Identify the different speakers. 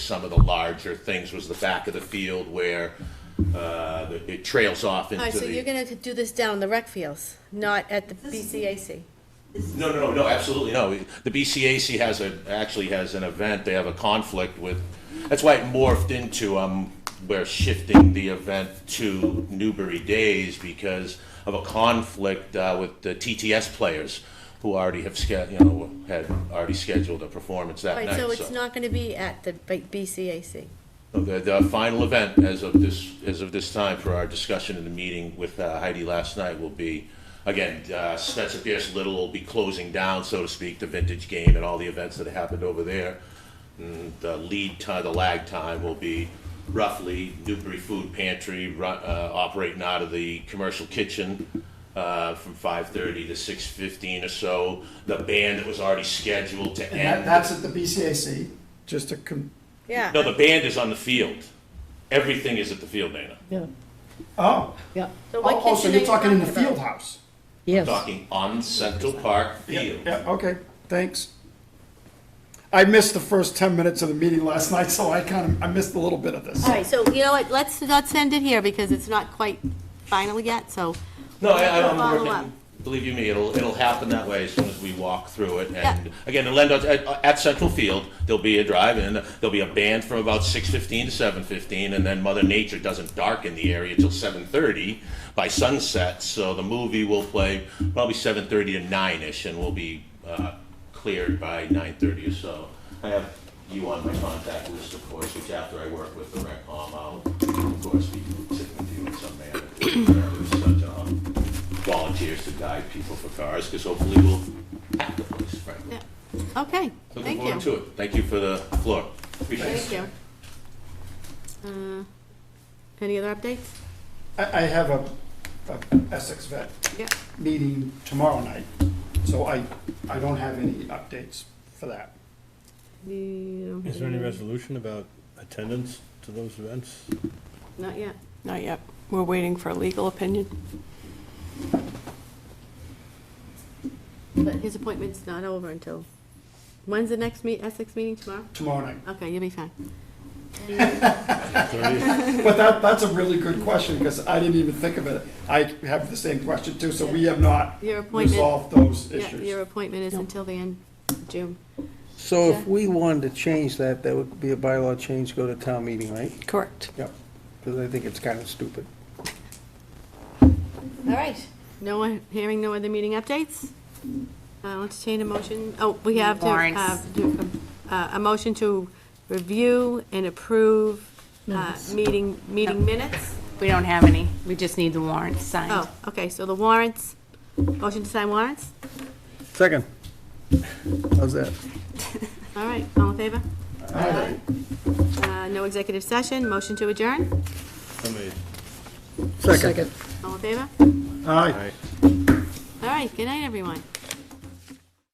Speaker 1: some of the larger things was the back of the field where uh, it trails off into
Speaker 2: All right, so you're
Speaker 1: the.
Speaker 2: gonna do this down the rec fields, not at the BCAC?
Speaker 1: No, no, no, absolutely no. The BCAC has a, actually has an event, they have a conflict with, that's why it morphed into, um, we're shifting the event to Newbury Days because of a conflict uh, with the TTS players who already have, sched- you know, had already scheduled a performance
Speaker 2: All
Speaker 1: that
Speaker 2: right,
Speaker 1: night,
Speaker 2: so it's not gonna be at the B- BCAC?
Speaker 1: The, the final event as of this, as of this time for our discussion in the meeting with uh, Heidi last night will be, again, uh, Spencer Pierce Little will be closing down, so to speak, the vintage game and all the events that happened over there. And the lead time, the lag time will be roughly Newbury Food Pantry, ru- uh, operating out of the commercial kitchen, uh, from five thirty to six fifteen or so. The band that was already scheduled to
Speaker 3: And that,
Speaker 1: end.
Speaker 3: that's at the BCAC, just to, com-
Speaker 2: Yeah.
Speaker 1: No, the band is on the field. Everything is at the field, Dana.
Speaker 4: Yeah,
Speaker 3: oh.
Speaker 4: yeah,
Speaker 2: So what
Speaker 3: Oh, oh, so
Speaker 2: kitchen are
Speaker 3: you're
Speaker 2: you
Speaker 3: talking in the
Speaker 2: about?
Speaker 3: field house?
Speaker 4: yes.
Speaker 1: Talking on Central Park Field.
Speaker 3: Yeah, okay, thanks. I missed the first ten minutes of the meeting last night, so I kind of, I missed a little bit of this.
Speaker 2: All right, so you know what, let's not send it here because it's not quite final yet, so.
Speaker 1: No, I,
Speaker 2: We'll
Speaker 1: I'm
Speaker 2: follow up.
Speaker 1: working, believe you me, it'll, it'll happen that way as soon as we walk through it. And
Speaker 2: Yeah.
Speaker 1: again, the Lendo, at, at Central Field, there'll be a drive-in, there'll be a band from about six fifteen to seven fifteen, and then Mother Nature doesn't darken the area till seven thirty by sunset, so the movie will play probably seven thirty to nine-ish, and will be, uh, cleared by nine thirty or so. I have you on my contact list, of course, which after I work with the rec com, I'll, of course, be sitting with you in some manner. There's such, um, volunteers to guide people for cars, because hopefully we'll hack the place, frankly.
Speaker 2: Yeah. Okay,
Speaker 1: Looking
Speaker 2: thank
Speaker 1: forward
Speaker 2: you.
Speaker 1: to it. Thank you for the floor. Appreciate it.
Speaker 2: Thank you. Uh, Any other updates?
Speaker 3: I, I have a, a Essex vet
Speaker 2: Yeah,
Speaker 3: meeting tomorrow night, so I, I don't have any updates for that.
Speaker 2: You don't
Speaker 5: Is
Speaker 2: have
Speaker 5: there any
Speaker 2: any-
Speaker 5: resolution about attendance to those events?
Speaker 2: Not yet.
Speaker 6: Not yet. We're waiting for a legal opinion.
Speaker 2: But his appointment's not over until, when's the next meet, Essex meeting tomorrow?
Speaker 3: Tomorrow night.
Speaker 2: Okay, you'll be fine.
Speaker 3: But that, that's a really good question, because I didn't even think of it. I have the same question too, so we have not
Speaker 2: Your appointment-
Speaker 3: resolved those
Speaker 2: Yeah,
Speaker 3: issues.
Speaker 2: your appointment is until the end of June.
Speaker 7: So
Speaker 2: Yeah.
Speaker 7: if we wanted to change that, that would be a bylaw change, go to town meeting, right?
Speaker 6: Correct.
Speaker 7: Yep. Because I think it's kind of stupid.
Speaker 2: All right. No one, hearing no other meeting updates? Uh, I'll entertain a motion, oh, we have to, uh,
Speaker 8: Warrants.
Speaker 2: do, uh, a motion to review and approve, uh, meeting, meeting minutes?
Speaker 8: We don't have any. We just need the warrants signed.
Speaker 2: Oh, okay, so the warrants, motion to sign warrants?
Speaker 7: Second. How's that?
Speaker 2: All right, all in favor? Uh, no executive session, motion to adjourn,
Speaker 5: Somebody
Speaker 7: Second.
Speaker 2: all in favor?
Speaker 3: Aye.
Speaker 2: All right, good night, everyone.